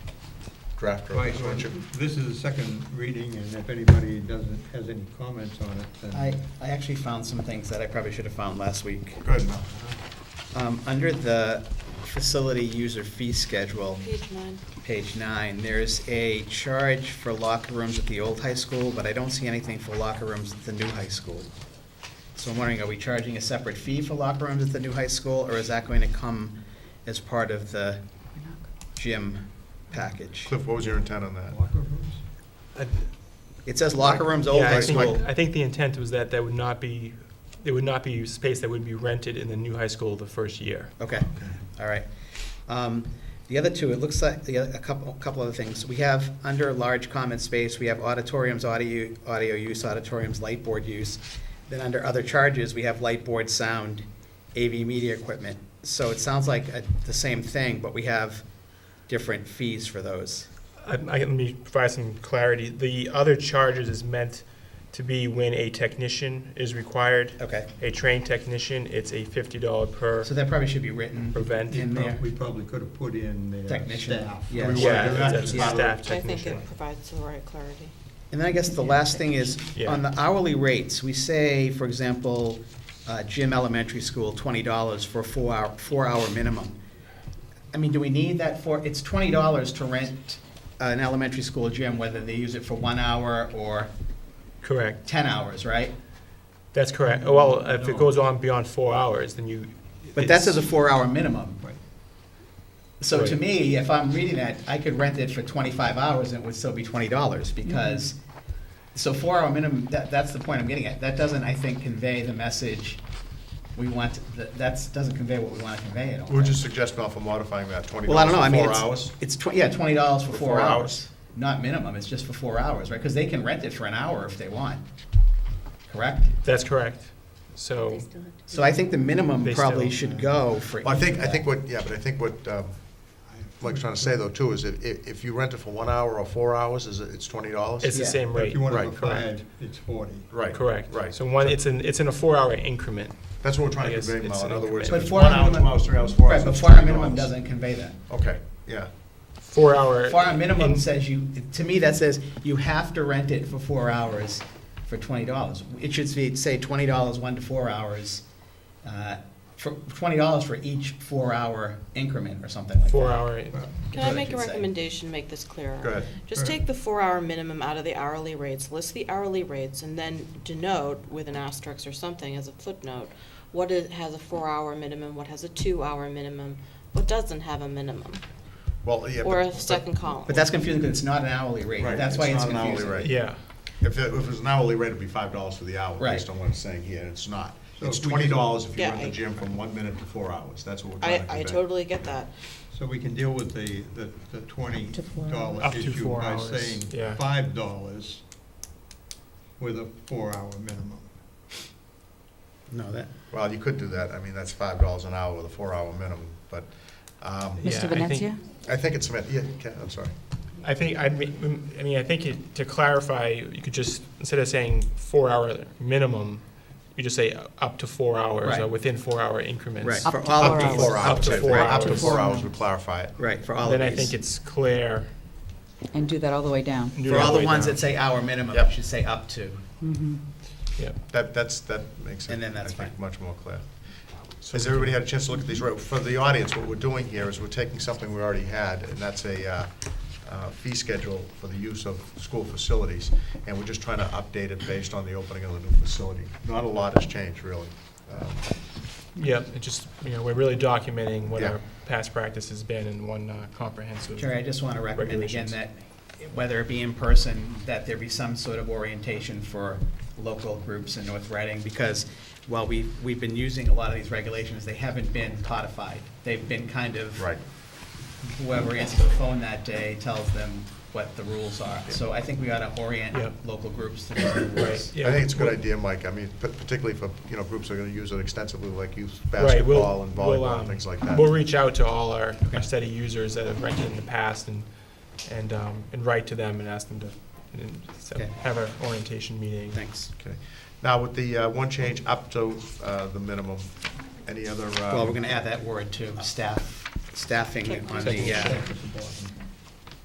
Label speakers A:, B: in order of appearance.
A: drafter of
B: Right,
A: this,
B: well,
A: weren't you?
B: this is the second reading, and if anybody doesn't, has any comments on it, then.
C: I, I actually found some things that I probably should have found last week.
A: Good. Mel.
C: Um, Under the facility user fee schedule,
D: Page nine.
C: page nine, there's a charge for locker rooms at the old high school, but I don't see anything for locker rooms at the new high school. So I'm wondering, are we charging a separate fee for locker rooms at the new high school, or is that going to come as part of the gym package?
A: Cliff, what was your intent on that?
B: Locker rooms?
E: I-
C: It says locker rooms, old
E: Yeah, I
C: high
E: think-
C: school.
E: I think the intent was that that would not be, there would not be space that would be rented in the new high school the first year.
C: Okay, all right. Um, The other two, it looks like, the other- a couple, a couple other things. We have, under large common space, we have auditoriums, audio, audio use, auditoriums, light board use. Then under other charges, we have light board, sound, AV media equipment. So it sounds like uh, the same thing, but we have different fees for those.
E: I, I, let me provide some clarity. The other charges is meant to be when a technician is required.
C: Okay,
E: A trained technician, it's a fifty dollar per
C: so that probably should be written
E: Prevent.
C: in there.
B: We probably could have put in the
C: Technician,
B: staff.
C: yeah.
A: We
E: Yeah,
A: do that.
E: that's a
C: Yeah.
E: staff
D: I think
E: technician.
D: it provides the right clarity.
C: And then I guess the last thing is,
E: Yeah.
C: on the hourly rates, we say, for example, uh, Jim Elementary School, twenty dollars for a four-hour, four-hour minimum. I mean, do we need that for, it's twenty dollars to rent an elementary school gym, whether they use it for one hour or
E: Correct.
C: ten hours, right?
E: That's correct. Oh, Well, if
B: No.
E: it goes on beyond four hours, then you.
C: But that
E: it's-
C: says a four-hour minimum.
B: Right.
C: So to
E: Right.
C: me, if I'm reading that, I could rent it for twenty-five hours and it would still be twenty dollars because, so four-hour minimum, that, that's the point I'm getting at. That doesn't, I think, convey the message we want, that, that's, doesn't convey what we want to convey at all.
A: What would you suggest, Mel, for modifying that, twenty
C: Well, I
A: dollars
C: don't know, I
A: for
C: mean,
A: four
C: it's,
A: hours?
C: it's tw- yeah, twenty dollars for
A: For
C: four
A: four
C: hours.
A: hours.
C: Not minimum, it's just for four hours, right? Because they can rent it for an hour if they want, correct?
E: That's correct. So,
C: So I think the minimum
E: They
C: probably
E: still-
C: should go for.
A: Well, I think,
C: each
A: I
C: of
A: think
C: that.
A: what, yeah, but I think what um, Mike's trying to say though too is if, if if you rent it for one hour or four hours, is it, it's twenty dollars?
E: it's the
C: Yeah.
E: same
B: But
E: rate.
B: if you want to
A: Right,
B: go five, it's forty.
A: Right.
E: Correct.
A: Right.
E: So one, it's in, it's in a four-hour increment.
A: That's what we're
E: I
A: trying to
E: guess
A: convey,
E: it's
A: Mel, in
E: an
A: other words.
E: increment.
A: if
C: But
A: it's
C: four
A: one
C: hour
A: hour,
C: minimum-
A: two hours, three hours, four hours,
C: Right, but
A: it's
C: four-hour
A: $20.
C: minimum doesn't convey that.
A: Okay, yeah.
E: Four-hour.
C: Four-hour minimum
E: in-
C: says you, to me, that says you have to rent it for four hours for twenty dollars. It should be, say, twenty dollars, one to four hours, uh, for, twenty dollars for each four-hour increment or something like that.
E: Four-hour,
D: Can I
C: Good,
D: make a
C: you'd say.
D: recommendation, to make this clearer?
A: Go ahead.
D: Just take the four-hour minimum out of the hourly rates, list the hourly rates, and then denote with an asterisk or something as a footnote, what is, has a four-hour minimum, what has a two-hour minimum, what doesn't have a minimum,
A: Well, yeah.
D: or
A: but-
D: a second column.
C: But that's confusing because it's not an hourly rate.
A: Right,
C: That's why it's
A: not an hourly
C: confusing.
A: rate.
E: yeah.
A: If it, if it was an hourly rate, it'd be five dollars for the hour,
C: Right.
A: based on what it's saying here, and it's not.
B: So
A: It's
B: if we
A: twenty dollars if you
D: Yeah,
A: rent
D: I-
A: the gym from one minute to four hours, that's what we're trying
D: I,
A: to convey.
D: I totally get that.
B: So we can deal with the, the the twenty
F: To four
B: dollar
E: Up to
B: issue
E: four
B: by
E: hours,
B: saying
E: yeah.
B: five dollars with a four-hour minimum.
C: No, that,
A: Well, you could do that, I mean, that's five dollars an hour with a four-hour minimum, but, um,
E: Yeah, I
F: Mr.
E: think-
F: Venezia?
A: I think it's, meant- yeah, Ken, I'm sorry.
E: I think, I mean, I mean, I think it- to clarify, you could just, instead of saying four-hour minimum, you just say up to four hours, or
C: Right.
E: within four-hour increments.
C: Right.
F: Up
C: For
F: to
C: all
F: four
C: of
A: Up to
C: these.
A: four hours.
E: Up to
A: I think.
E: four
A: Up to
E: hours.
A: four hours would clarify it.
C: right, for all of
E: Then
C: these.
E: I think it's clear.
F: And do that all the way down.
E: do
C: For all the
E: way
C: ones
E: down.
C: that say hour minimum,
A: Yep.
C: it should say up to.
E: Yeah.
A: That, that's, that makes it,
C: And then
A: I
C: that's
A: think,
C: fine.
A: much more clear. Has everybody had a chance to look at these? Right, For the audience, what we're doing here is we're taking something we already had, and that's a uh, uh, fee schedule for the use of school facilities, and we're just trying to update it based on the opening of the new facility. Not a lot has changed, really. Um,
E: Yep, it just, you know, we're really documenting what
A: Yeah.
E: our past practice has been in one uh, comprehensive.
C: Jerry, I just want to recommend again
E: Regulations.
C: that, whether it be in person, that there be some sort of orientation for local groups in North Reading, because while we, we've been using a lot of these regulations, they haven't been codified. They've been kind of.
A: Right.
C: Whoever answers the phone that day tells them what the rules are. So I think we ought to orient
E: Yeah.
C: local groups to the new rules.
E: Right,
A: I
E: yeah.
A: think it's a good idea, Mike, I mean, pa- particularly for, you know, groups that are going to use it extensively, like youth
E: Right, we'll-
A: basketball and
E: we'll,
A: volleyball,
E: um,
A: and things like that.
E: We'll reach out to all our, our steady users that have rented in the past and, and, um, and write to them and ask them to, and so
C: Okay.
E: have an orientation meeting.
C: Thanks.
A: Okay. Now, with the uh, one change up to uh, the minimum, any other? uh,
C: Well, we're going to add that word to staff, staffing on the, uh,
B: That's the bottom.